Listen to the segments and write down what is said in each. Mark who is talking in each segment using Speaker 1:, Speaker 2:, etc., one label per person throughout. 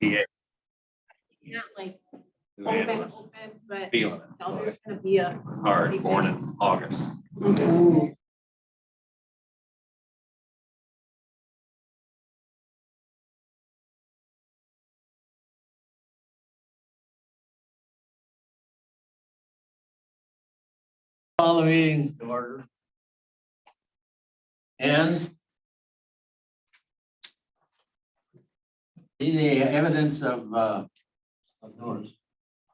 Speaker 1: Yeah.
Speaker 2: Not like
Speaker 1: Man,
Speaker 2: open,
Speaker 1: I was
Speaker 2: open, but
Speaker 1: Feeling
Speaker 2: no,
Speaker 1: it
Speaker 2: there's gonna be a.
Speaker 1: hard, born in August.
Speaker 3: Call the meeting to order. And see the evidence of, uh, of notice.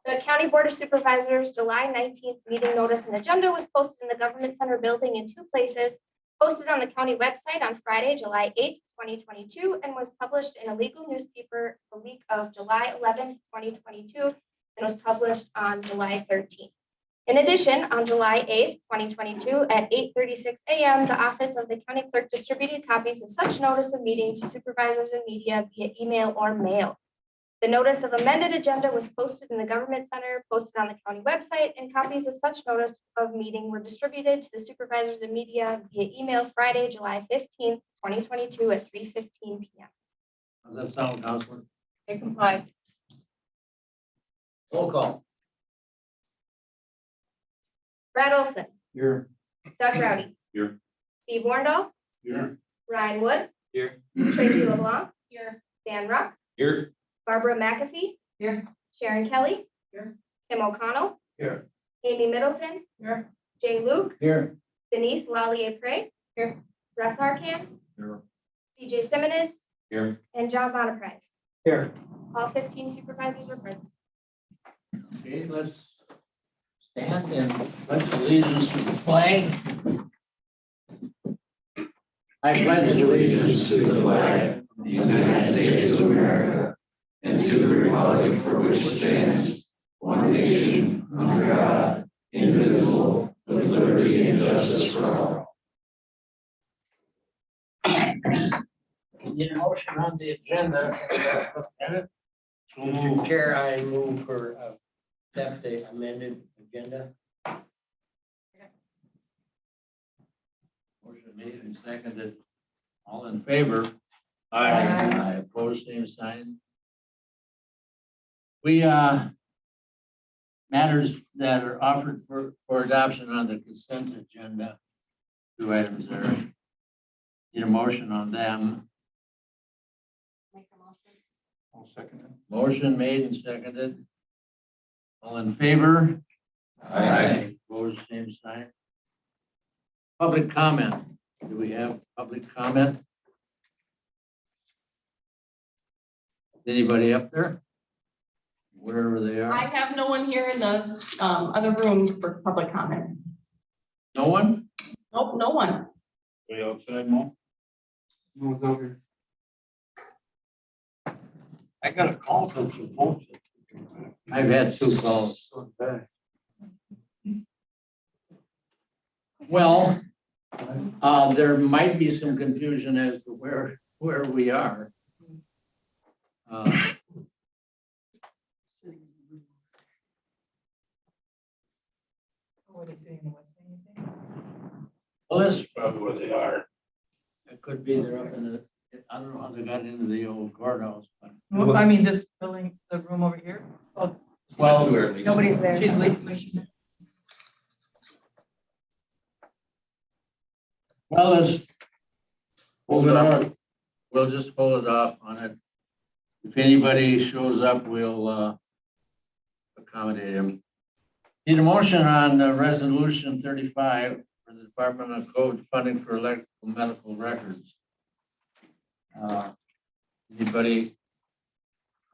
Speaker 4: The County Board of Supervisors, July nineteenth meeting notice and agenda was posted in the Government Center building in two places, posted on the county website on Friday, July eighth, twenty twenty-two, and was published in a legal newspaper the week of July eleventh, twenty twenty-two, and was published on July thirteenth. In addition, on July eighth, twenty twenty-two, at eight thirty-six AM, the Office of the County Clerk distributed copies of such notice of meeting to supervisors and media via email or mail. The notice of amended agenda was posted in the government center, posted on the county website, and copies of such notice of meeting were distributed to the supervisors and media via email Friday, July fifteenth, twenty twenty-two at three fifteen P M.
Speaker 3: Does that sound, Counselor?
Speaker 2: It complies.
Speaker 3: Roll call.
Speaker 4: Brad Olson,
Speaker 3: Here.
Speaker 4: Doug Rowdy.
Speaker 1: Here.
Speaker 4: Steve Wornall,
Speaker 3: Here.
Speaker 4: Ryan Wood.
Speaker 1: Here.
Speaker 4: Tracy LeBlanc,
Speaker 2: Here,
Speaker 4: Dan Ruck,
Speaker 1: Here,
Speaker 4: Barbara McAfee.
Speaker 2: Here.
Speaker 4: Sharon Kelly.
Speaker 2: Here.
Speaker 4: Kim O'Connell.
Speaker 3: Here.
Speaker 4: Amy Middleton,
Speaker 2: here,
Speaker 4: Jay Luke,
Speaker 3: Here.
Speaker 4: Denise Lallier Prey.
Speaker 2: Here.
Speaker 4: Russ Harkamp.
Speaker 1: Here.
Speaker 4: CJ Simmons.
Speaker 1: Here.
Speaker 4: And John Bonaprise.
Speaker 3: Here.
Speaker 4: All fifteen supervisors are present.
Speaker 3: Okay, let's stand and let's allegiance to the flag. I pledge allegiance to the flag.
Speaker 5: the United States of America, and to the republic for which it stands, one nation, under God, indivisible, with liberty and justice for all.
Speaker 3: Need a motion on the agenda. and, uh,
Speaker 6: So move. Chair, I move for uh, accept the amended agenda.
Speaker 3: Motion made and seconded. All in favor?
Speaker 2: Aye.
Speaker 3: Aye, opposed, same sign. We, uh, matters that are offered for, for adoption on the consent agenda, two items there. Need a motion on them.
Speaker 2: make a motion.
Speaker 6: I'll second it.
Speaker 3: Motion made and seconded. All in favor? Opposed, same sign. Public comment. Do we have public comment? Anybody up there? Wherever they
Speaker 7: I
Speaker 3: are.
Speaker 7: have no one here in the um, other room for public comment.
Speaker 3: No one?
Speaker 7: Nope, no one.
Speaker 6: Way outside, Mo? No one's out here. I got a call from some folks.
Speaker 3: I've had two calls. Well, uh, there might be some confusion as to where, where we are. Uh,
Speaker 2: Were they sitting in the West Wing, you think?
Speaker 3: Well, this
Speaker 6: Probably where they are.
Speaker 3: it could be they're up in the, I don't know how they got into the old courthouse, but.
Speaker 2: Well, I mean, this building, the room over here,
Speaker 3: Well,
Speaker 2: nobody's there. She's leaving.
Speaker 3: Well, let's.
Speaker 1: Hold it
Speaker 3: off. We'll just hold it off on it. If anybody shows up, we'll, uh, accommodate him. Need a motion on uh, resolution thirty-five for the Department of Code funding for electrical medical records. Uh, Anybody?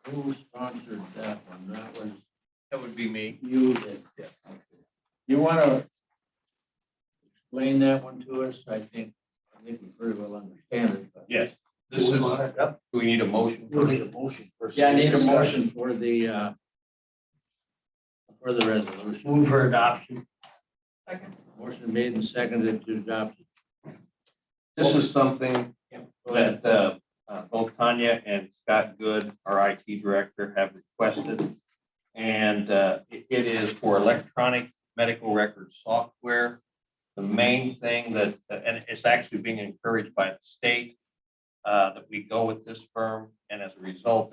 Speaker 3: Who sponsored that one? That was
Speaker 1: that would be me.
Speaker 3: you that. You want to explain that one to us? I think, I think we pretty well understand it, but.
Speaker 1: Yes. This is, do we need a motion?
Speaker 6: We'll need a motion first.
Speaker 3: Yeah, I need a motion for the, uh, for the resolution.
Speaker 6: Move for adoption.
Speaker 3: Motion made and seconded to adopt. it.
Speaker 1: This is something
Speaker 3: Go ahead.
Speaker 1: that uh, uh, both Tanya and Scott Good, our IT director, have requested. And uh, it it is for electronic medical record software. The main thing that, and it's uh, actually being encouraged by the state uh, that we go with this firm. And as a result,